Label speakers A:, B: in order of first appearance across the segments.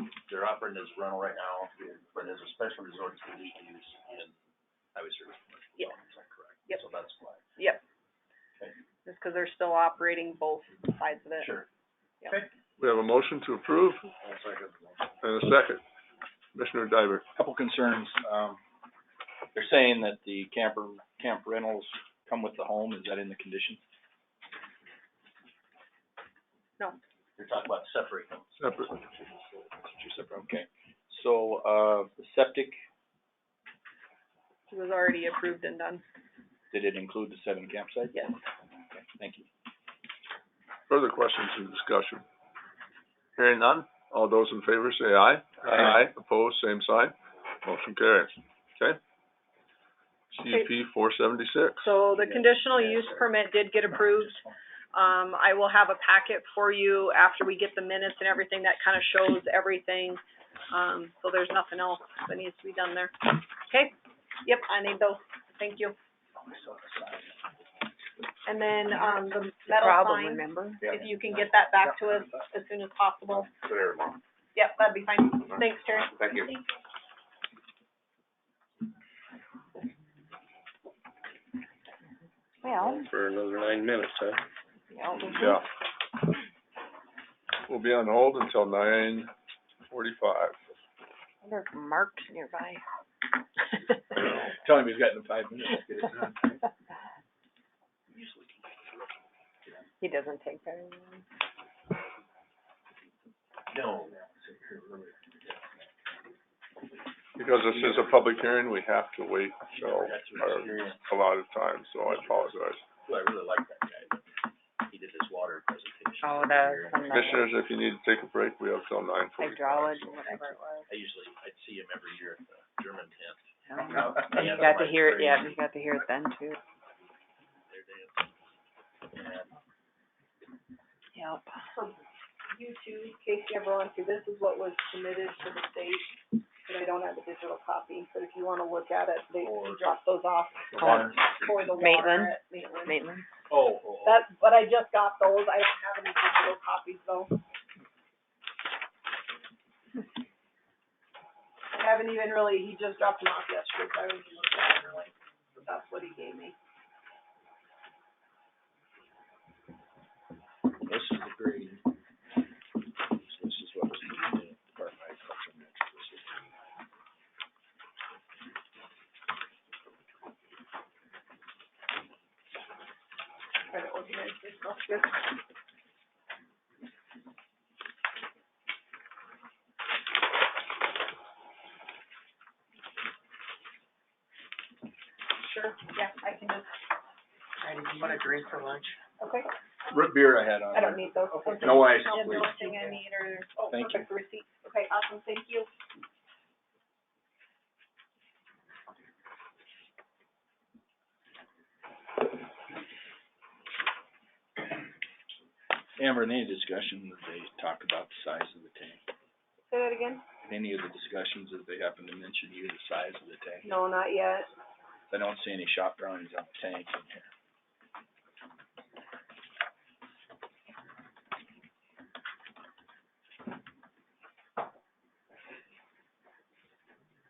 A: operating as rental right now, but as a special resort, it's conditional use and highway service commercial
B: Yes.
A: zone, is that correct?
B: Yep.
A: So that's why.
B: Yep.
A: Okay.
B: Just because they're still operating both sides of it.
A: Sure.
C: We have a motion to approve
A: That's like a-
C: and a second. Commissioner Diver.
D: Couple concerns, um, they're saying that the camper, camp rentals come with the home, is that in the condition?
A: You're talking about separate them.
C: Separate.
D: Two separate, okay. So, uh, the septic,
B: It was already approved and done,
D: did it include the seven campsites?
B: yes.
D: Okay, Thank you.
C: Further questions and discussion? Hearing none, all those in favor say aye.
D: Aye.
C: Opposed, same sign. Motion carries. Okay? CUP four seventy-six.
B: So the
A: Yeah.
B: conditional
A: Yeah,
B: use
A: sorry.
B: permit did get approved. Um, I will have a packet for you after we get the minutes and everything that kind of shows everything. Um, so there's nothing else that needs to be done there. Okay? Yep, I need those. Thank you. And then, um, the metal sign,
E: remember?
B: if you can get that back to us as soon as possible. Yep, that'd be fine. Thanks, Terry.
A: Thank you.
E: Well,
F: for another nine minutes, huh?
C: Yeah. We'll be on hold until nine forty-five.
E: I wonder if Mark's nearby.
D: Tell him he's got in five minutes. Get it done.
E: He doesn't take very long.
A: No.
C: Because this is a public hearing, we have to wait till
A: That's an
C: our
A: experience.
C: allotted time, so I apologize.
A: Who I really like that guy, but he did his water presentation. over
E: Oh, that's
A: here.
E: from the
C: Commissioners, if you need to take a break, we have till nine forty-five.
E: hydrology, whatever it was.
A: I usually, I'd see him every year at the German tent.
E: I don't
D: Oh,
E: know. You got to hear it, yeah, you got to hear it then too. Yep.
B: you two, Casey, everyone, see, this is what was submitted to the state, but I don't have a digital copy, but if you wanna look at it, they, he dropped those off
A: The water-
B: for the water
E: Maitland?
B: at Maitland.
E: Maitland?
A: Oh, oh, oh.
B: That, but I just got those, I don't have any digital copies though. I haven't even really, he just dropped them off yesterday, so I haven't even looked at them really, but that's what he gave me.
A: This is the grade. This is what was in the Department of Agriculture. and Natural Resources.
B: Try to organize this stuff here. Sure, yeah, I can just, okay,
D: Root beer I had on
B: I don't
D: there.
B: need those. Okay.
D: No ice,
B: Yeah, the
D: please.
B: only thing I need are, oh,
D: Thank
B: perfect receipt, okay, awesome, thank you.
D: Amber, in any discussion that they talk about the size of the tank?
B: Say that again?
D: In Any of the discussions that they happen to mention you, the size of the tank?
B: No, not yet.
D: I don't see any shop drawings on the tank in here.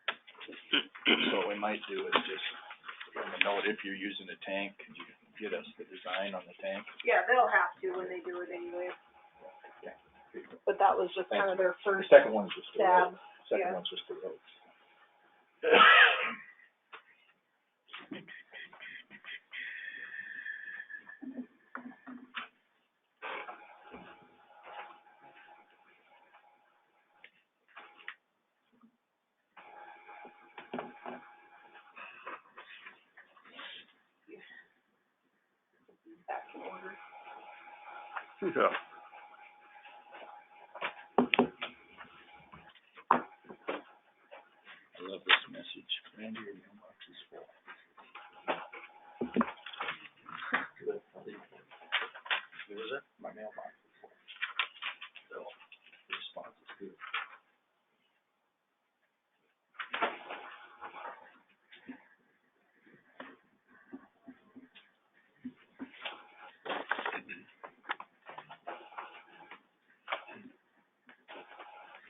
D: So what we might do is just, let me know if you're using a tank, could you get us the design on the tank?
B: Yeah, they'll have to when they do it anyway. But that was just kind of their first
D: second one's just
B: stab, yeah.
D: one's just the roads.
B: back in order.
C: Yeah.